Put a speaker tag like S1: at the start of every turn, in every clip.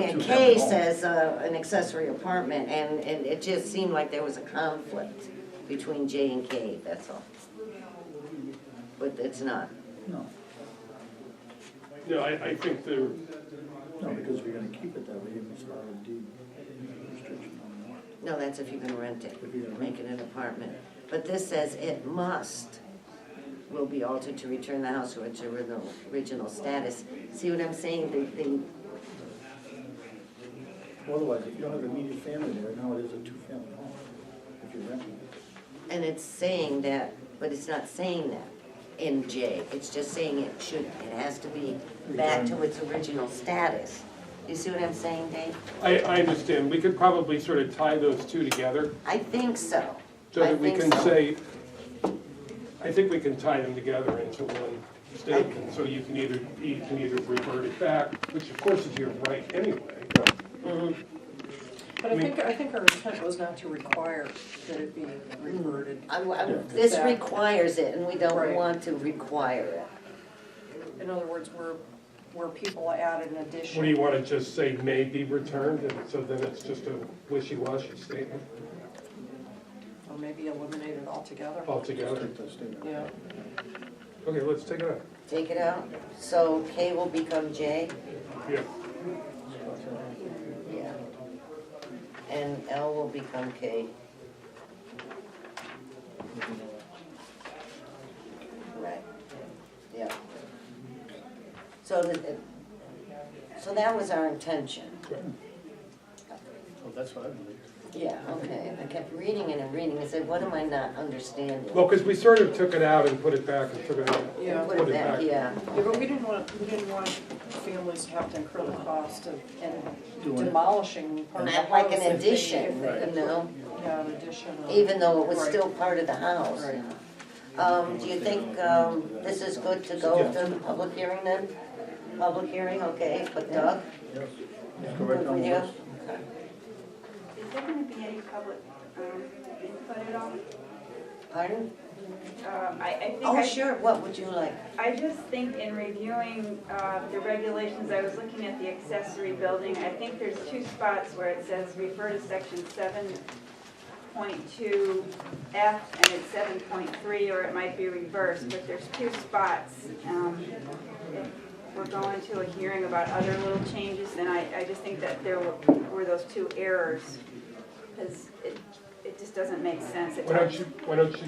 S1: Yeah,
S2: two
S1: K
S2: family home.
S1: says, uh, an accessory apartment, and, and it just seemed like there was a conflict between J and K, that's all. But it's not.
S2: No,
S3: No, I, I think they're,
S2: no, because we're gonna keep it that way if it's not a deed restriction on that.
S1: No, that's if you can rent it,
S2: If you can
S1: make
S2: rent
S1: it an apartment. But this says it must, will be altered to return the house to its original, original status. See what I'm saying? The, the,
S2: Otherwise, if you don't have immediate family there, now it is a two-family home, if you're renting it.
S1: and it's saying that, but it's not saying that in J. It's just saying it should, it has to be back to its original status. You see what I'm saying, Dave?
S3: I, I understand, we could probably sort of tie those two together,
S1: I think so.
S3: so that we
S1: I
S3: can
S1: think so.
S3: say, I think we can tie them together into one statement, so you can either, you can either revert it back, which of course is your right anyway.
S4: But I think, I think our intent was not to require that it be reverted.
S1: I- I- This requires it, and we don't
S4: Right.
S1: want to require it.
S4: In other words, where, where people add an
S3: What do you
S4: addition.
S3: want to just say may be returned, and so then it's just a wishy-washy statement
S4: Or maybe eliminate it altogether.
S3: altogether?
S2: Take that statement.
S4: Yeah.
S3: Okay, let's take it out.
S1: Take it out, so K will become J?
S3: Yeah,
S1: Yeah. And L will become K, right? Yeah. So that, it- so that was our intention.
S2: Well, Oh, that's what I believe.
S1: Yeah, okay, I kept reading it and reading, I said, what am I not understanding?
S3: well, because we sort of took it out and put it back and took it out.
S4: Yeah.
S1: Put it back, yeah,
S4: Yeah, but we didn't want, we didn't want families to have to incur the cost of and
S2: Doing it.
S4: demolishing part of the
S1: not
S4: house.
S1: like an
S4: if they- if
S1: addition,
S4: they-
S1: you know?
S4: Yeah, an addition. of-
S1: even though it was
S4: Right.
S1: still part of the house.
S4: Right.
S1: Um, do you think, um, this is good to go to the public hearing then? Public hearing, okay, but Doug,
S2: Yes. Go right
S1: good
S2: down
S1: with
S2: the
S1: you?
S2: list.
S5: Is there gonna be any public um, input at all?
S1: Pardon?
S5: Um, I, I think
S1: Oh,
S5: I-
S1: sure, what would you like?
S5: I just think in reviewing uh, the regulations, I was looking at the accessory building. I think there's two spots where it says refer to section seven point two F and it's seven point three, or it might be reversed, but there's two spots. um, if We're going to a hearing about other little changes, and I, I just think that there were were those two errors. Because it, it just doesn't make sense. It
S3: Why don't
S5: talks-
S3: you, why don't you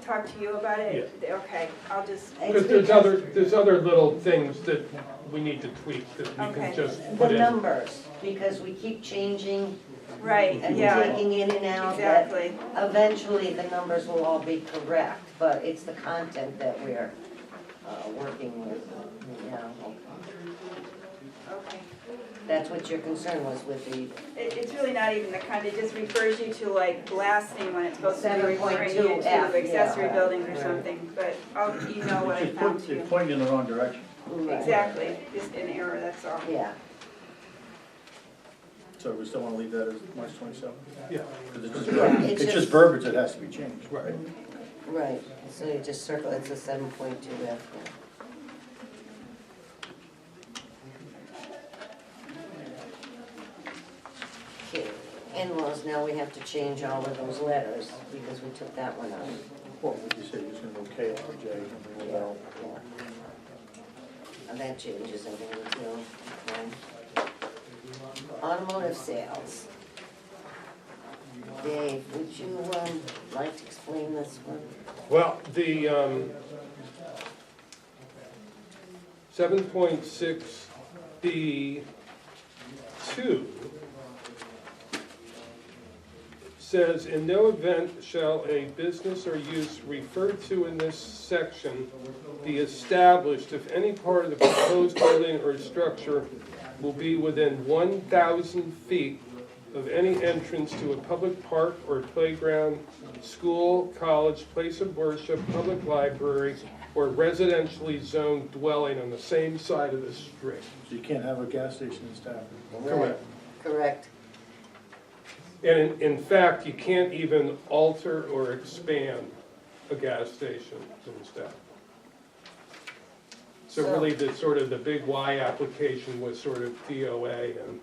S5: Talk to you about it? Okay, I'll just.
S3: Because there's other, there's other little things that we need to tweak that we
S5: Okay.
S3: can just
S1: The
S3: put in.
S1: numbers, because we keep changing
S5: Right,
S1: and
S5: yeah,
S1: taking in and out that
S5: exactly.
S1: eventually the numbers will all be correct, but it's the content that we're, uh, working with, yeah.
S5: Okay.
S1: That's what your concern was with the
S5: It, it's really not even the kind, it just refers you to like blasting when it's supposed to be referring you
S1: 7.2 F,
S5: to
S1: yeah.
S5: accessory buildings or
S1: Right.
S5: something, but I'll email what I
S2: It's point-
S5: found to
S2: It's
S5: you.
S2: pointing in the wrong direction,
S5: Exactly, just an error, that's all.
S1: Yeah,
S2: so we still wanna leave that as March twenty-seventh?
S3: Yeah,
S2: Because it's just, verb-
S1: It's
S2: it's
S1: just-
S2: just verbiage that has to be changed,
S3: right.
S2: right?
S1: right, so you just circle, it's a seven point two F, yeah. Okay, in-laws, now we have to change all of those letters, because we took that one out.
S2: Well, you said you're just gonna go K for J, and then
S1: Yeah,
S2: we'll,
S1: yeah. And that changes everything too. okay. Automotive sales. Dave, would you, um, like to explain this one?
S3: Well, the, um, seven point six B two says, in no event shall a business or use referred to in this section be established if any part of the proposed building or structure will be within one thousand feet of any entrance to a public park or playground, school, college, place of worship, public library, or residentially zoned dwelling on the same side of the street.
S2: so you can't have a gas station in Stafford.
S3: Correct.
S1: Correct.
S3: And in, in fact, you can't even alter or expand a gas station in Stafford. So really, the sort of, the big Y application was sort of DOA and